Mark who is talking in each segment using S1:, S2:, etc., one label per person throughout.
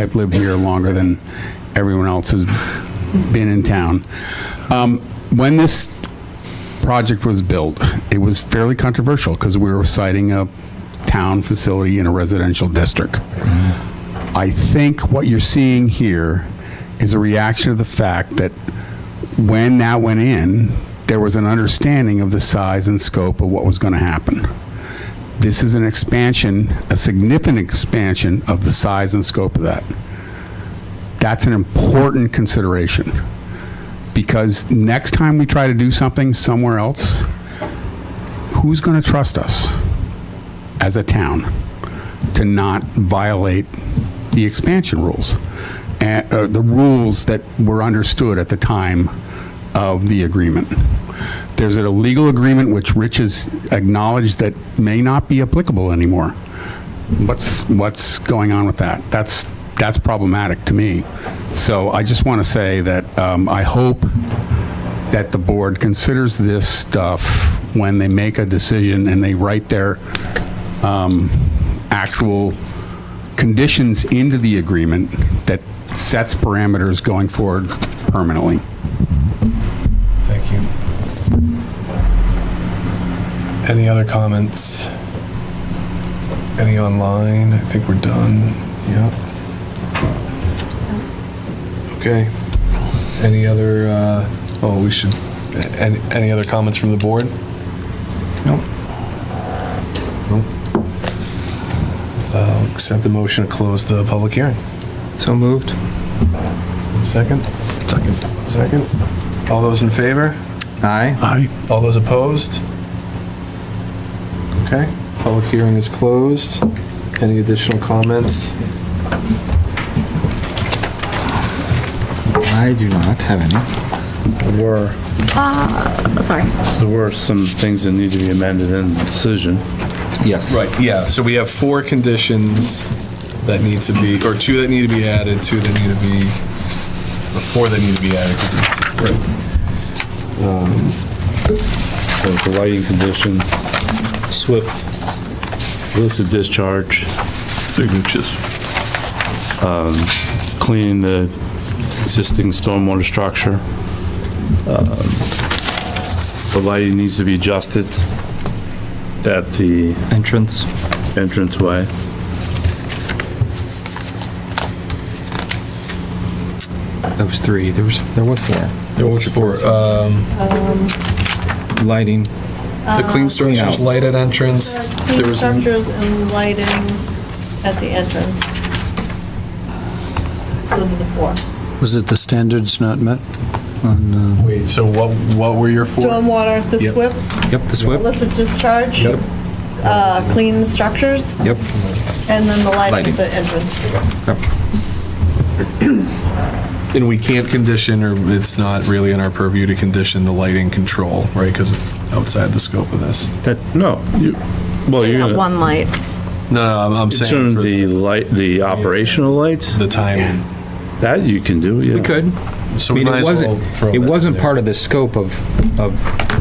S1: I've lived here longer than everyone else has been in town. Um, When this project was built, it was fairly controversial because we were citing a town facility in a residential district. I think what you're seeing here is a reaction to the fact that when that went in, there was an understanding of the size and scope of what was going to happen. This is an expansion, a significant expansion of the size and scope of that. That's an important consideration because next time we try to do something somewhere else, who's going to trust us as a town to not violate the expansion rules? And, uh, the rules that were understood at the time of the agreement. There's a legal agreement which Rich has acknowledged that may not be applicable anymore. What's, what's going on with that? That's, that's problematic to me. So I just want to say that um, I hope that the board considers this stuff when they make a decision and they write their um, actual conditions into the agreement that sets parameters going forward permanently.
S2: Thank you. Any other comments? Any online? I think we're done. Yep. Okay. Any other, uh, oh, we should, a- any, any other comments from the board? Nope. Nope. Uh, Accept the motion to close the public hearing.
S3: So moved.
S2: Second? Second. Second. All those in favor?
S3: Aye.
S2: Aye. All those opposed? Okay, public hearing is closed. Any additional comments?
S3: I do not have any.
S4: were,
S5: Uh, Sorry.
S4: there were some things that need to be amended in the decision.
S3: Yes.
S2: Right, yeah, so we have four conditions that need to be, or two that need to be added, two that need to be, or four that need to be added. Right.
S4: So it's a lighting condition, swift, illicit discharge. Signatures. Cleaning the existing stormwater structure. Um, The lighting needs to be adjusted at the
S3: Entrance.
S4: entranceway.
S3: That was three. There was, there was four.
S2: There was four, um,
S3: Lighting.
S2: the clean structures, light at entrance. There
S6: Clean
S2: was
S6: structures and lighting at the entrance. Those are the four.
S7: Was it the standards not met? on, uh,
S2: Wait, so what, what were your four?
S6: Stormwater, the
S2: Yep.
S6: SWIP,
S3: Yep, the SWIP.
S6: illicit discharge.
S2: Yep.
S6: Uh, clean structures.
S3: Yep.
S6: And then the lighting
S3: Lighting.
S6: at the entrance.
S2: And we can't condition, or it's not really in our purview to condition the lighting control, right? Because it's outside the scope of this.
S4: That, no, you, well, you're gonna,
S5: One light.
S2: No, no, I'm, I'm saying
S4: concerning
S2: for
S4: the
S2: the,
S4: light, the operational lights,
S2: timing.
S4: that you can do, yeah.
S3: We could.
S2: So
S3: I
S2: we
S3: mean,
S2: might
S3: it
S2: as well
S3: wasn't,
S2: throw
S3: it
S2: that in
S3: wasn't
S2: there.
S3: part of the scope of, of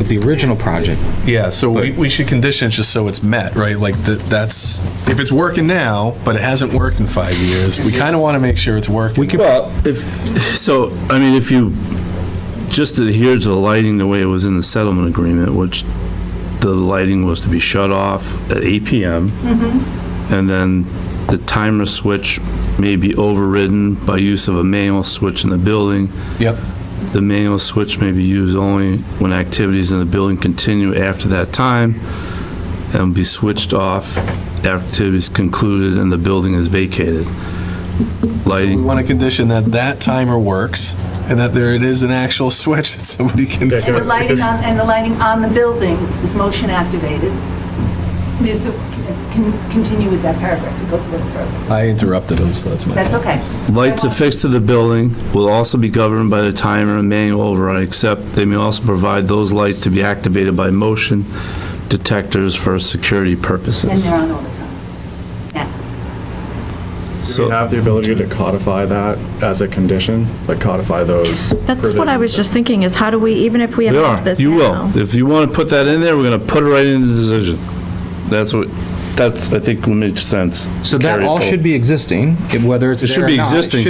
S3: the original project.
S2: Yeah, so we, we should condition it just so it's met, right? Like that, that's, if it's working now, but it hasn't worked in five years, we kind of want to make sure it's working. We
S4: Well, if, so, I mean, if you just adhere to the lighting the way it was in the settlement agreement, which the lighting was to be shut off at 8 PM, and then the timer switch may be overridden by use of a manual switch in the building.
S2: Yep,
S4: The manual switch may be used only when activities in the building continue after that time and be switched off after activities concluded and the building is vacated.
S2: we
S4: Lighting,
S2: want to condition that that timer works and that there it is an actual switch that somebody can.
S8: And the
S2: flip.
S8: lighting on, and the lighting on the building is motion activated. This, can continue with that paragraph, it goes a little further.
S2: I interrupted him, so that's my.
S8: That's
S2: fault.
S8: okay.
S4: lights affixed to the building will also be governed by the timer and manual override, except they may also provide those lights to be activated by motion detectors for security
S8: And
S4: purposes.
S8: they're on all the time. Yeah.
S9: Do we
S4: So,
S9: have the ability to codify that as a condition? Like codify those?
S5: That's what I was just thinking, is how do we, even if we
S4: we
S5: amend
S4: are,
S5: this
S4: you
S5: now?
S4: will. If you want to put that in there, we're going to put it right in the decision. That's what,
S3: that's, I think, makes sense.
S4: So that
S3: Carry it
S4: all
S3: forward.
S4: should be existing, if- whether it's
S3: It
S4: there
S3: should
S4: or
S3: be
S4: not,
S3: existing,